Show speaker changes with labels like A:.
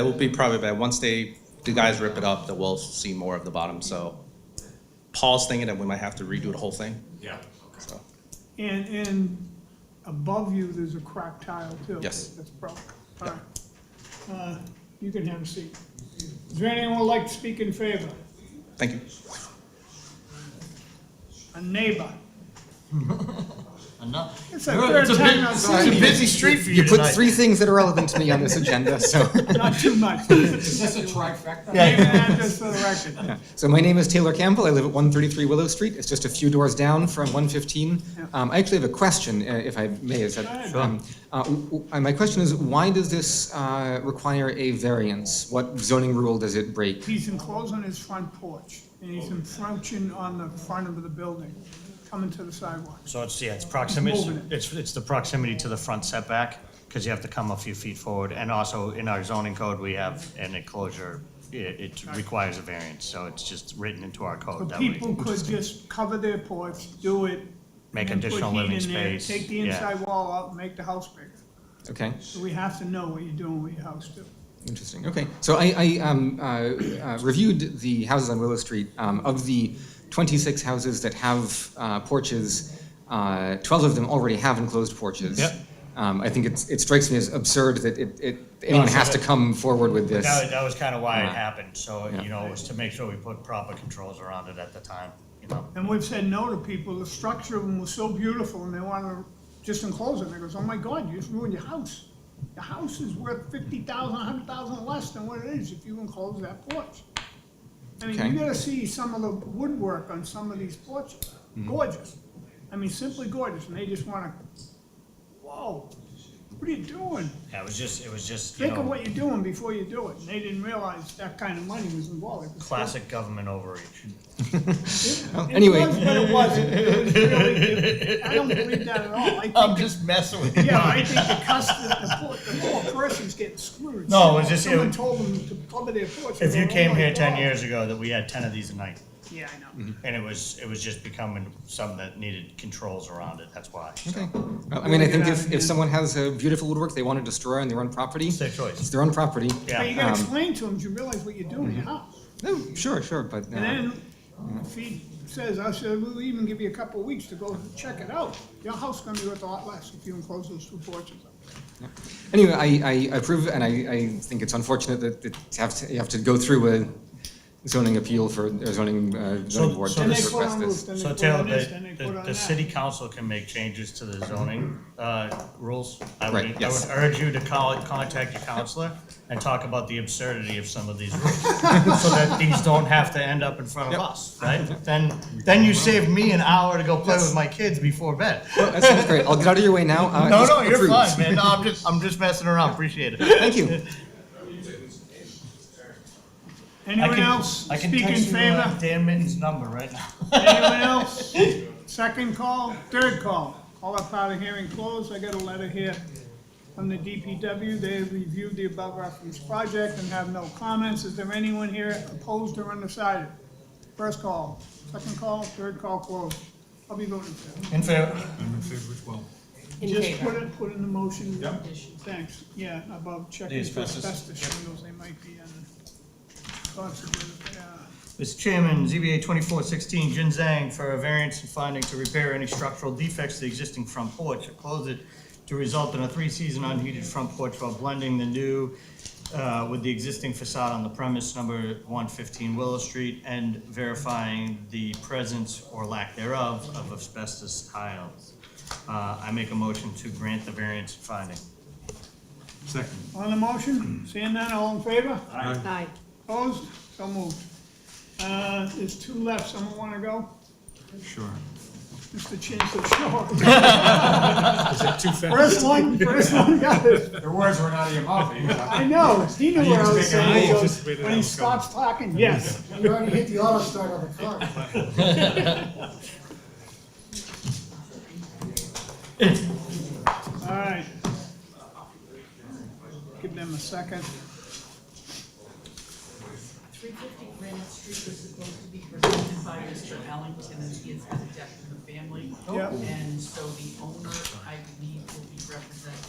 A: That will be probably bad. Once they, the guys rip it up, then we'll see more of the bottom, so. Paul's thinking that we might have to redo the whole thing,
B: Yeah, okay.
A: so,
C: And, and above you, there's a crack tile too.
A: Yes.
C: That's broke. All right. Uh, You can have a seat. Is there anyone who'd like to speak in favor?
A: thank you.
C: A neighbor?
D: Enough.
C: It's a
D: You're-
C: third
D: it's a
C: time
D: bit-
C: I've
D: It's a
C: seen
D: busy street for you
E: You put
D: tonight.
E: three things that are relevant to me on this agenda, so.
C: it. Not too much. Name
D: Is this a trifecta?
C: and address for the record.
E: So my name is Taylor Campbell. I live at 133 Willow Street. It's just a few doors down from 115.
C: Yeah.
E: Um, I actually have a question, uh, if I may. Is
C: Go
E: that,
C: ahead.
E: um, uh, w- w- uh, my question is, why does this uh, require a variance? What zoning rule does it break?
C: He's enclosed on his front porch, and he's encroaching on the front of the building, coming to the sidewalk.
D: So it's, yeah, it's proximity,
C: Moving it.
D: it's, it's the proximity to the front setback, because you have to come a few feet forward. And also, in our zoning code, we have an enclosure, it, it requires a variance, so it's just written into our
C: So
D: code. that way.
C: people could just cover their porch, do it.
D: Make
C: and then put
D: additional
C: heat
D: living
C: in there,
D: space,
C: Take the
D: yeah.
C: inside wall out, and make the house bigger.
E: Okay,
C: So we have to know what you're doing with your house too.
E: interesting. Okay, so I, I um, uh, uh, reviewed the houses on Willow Street. Um, of the 26 houses that have uh, porches, uh, 12 of them already have enclosed porches.
D: Yep.
E: Um, I think it's, it strikes me as absurd that it, it, anyone
D: so
E: has to
D: that-
E: come forward with this.
D: That, that was kind of why it
E: Yeah.
D: happened, so,
E: Yeah.
D: you know, it was to make sure we put proper controls around it at the time, you know?
C: And we've said no to people, the structure of them was so beautiful, and they wanna just enclose it, and they goes, oh my God, you just ruined your house. Your house is worth fifty thousand, a hundred thousand less than what it is if you enclose that porch. I mean,
E: Okay.
C: you gotta see some of the woodwork on some of these porches, gorgeous. I mean, simply gorgeous, and they just wanna, whoa, what are you doing?
D: Yeah, it was just, it was just, you
C: Think of
D: know,
C: what you're doing before you do it, and they didn't realize that kind of money was involved. It was-
D: classic government overreach.
E: anyway.
C: It was, but it wasn't. It was really, I don't believe that at all. I think,
D: just messing with
C: yeah, I think the customer, the poor, the poor person's getting screwed.
D: No, it was just-
C: Someone
D: it-
C: told them to cover their porch.
D: If you
C: Oh
D: came
C: my
D: here ten
C: God.
D: years Mm-hmm. ago, that we had ten of these a night,
C: Yeah, I know.
D: and it was, it was just becoming something that needed controls around it, that's why. so.
E: Okay. Well, I mean, I think
C: Yeah,
E: if,
C: yeah.
E: if someone has a beautiful woodwork they want to destroy on their own property,
D: It's their choice.
E: It's their own property.
D: Yeah. mm-hmm.
C: But you gotta
E: Um,
C: explain to them, you realize what you're doing in your house.
E: No, sure, sure, but uh,
C: And then if he says, I said, we'll even give you a couple of weeks to go check it out. Your house is gonna be worth a lot less if you enclose those two porches. up.
E: anyway, I, I approve, and I, I think it's unfortunate that it have to, you have to go through a zoning appeal for or zoning uh, zoning board
D: so
C: Then
E: to
C: they put
E: request
C: on roofs,
E: this.
C: then they
D: So
C: put
D: Taylor,
C: on this, then they
D: the,
C: put on
D: the,
C: that.
D: the city council can make changes to the zoning, uh, rules. I would,
E: Right,
D: I
E: yes.
D: would urge you to call, contact your counselor and talk about the absurdity of some of these rules. So that these don't have to end up in front of us, right? Then, then you save me an hour to go play with my kids before bed.
E: That sounds great. I'll get out of your way now. Uh,
D: No,
E: just
D: no, you're
E: approved.
D: fine, man. No, I'm just, I'm just messing around. Appreciate it.
E: Thank you.
C: Anyone else
D: I can
C: speak in
D: text you,
C: favor?
D: uh, Dan Mitten's number right now.
C: Anyone else? Second call, third call. All up out of hearing closed. I got a letter here from the DPW. They reviewed the above referenced project and have no comments. Is there anyone here opposed or undecided? First call, second call, third call closed. I'll be voting for it.
D: In favor?
F: In
C: Just
F: favor.
C: put it, put in the motion. Thanks. Yeah, above checking
B: The
C: for
B: asbestos.
C: asbestos shingles, they might be in. Yeah.
D: Mr. Chairman, ZBA twenty-four sixteen, Jin Zhang, for a variance and finding to repair any structural defects to the existing front porch, or close it to result in a three-season unheated front porch while blending the new, uh, with the existing facade on the premise number one fifteen Willow Street, and verifying the presence or lack thereof of asbestos tiles. Uh, I make a motion to grant the variance and finding.
C: On the motion, seeing none, all in favor?
F: Aye.
C: Opposed? So moved. Uh, There's two left, someone want to go? Sure. Mr. Chancellor, sure. First one, first one got it.
G: Your words were not in your mouth.
C: I know, he knew what I was
G: just make an eye,
C: saying.
G: you
C: so When he stops talking, yes.
G: You already hit the auto start on the car.
C: All right. Give them a second.
H: Three fifty Granite Street was supposed to be presented by Mr. Ellington, and he has been a death in the family.
C: Yep.
H: And so the owner, I believe, will be represented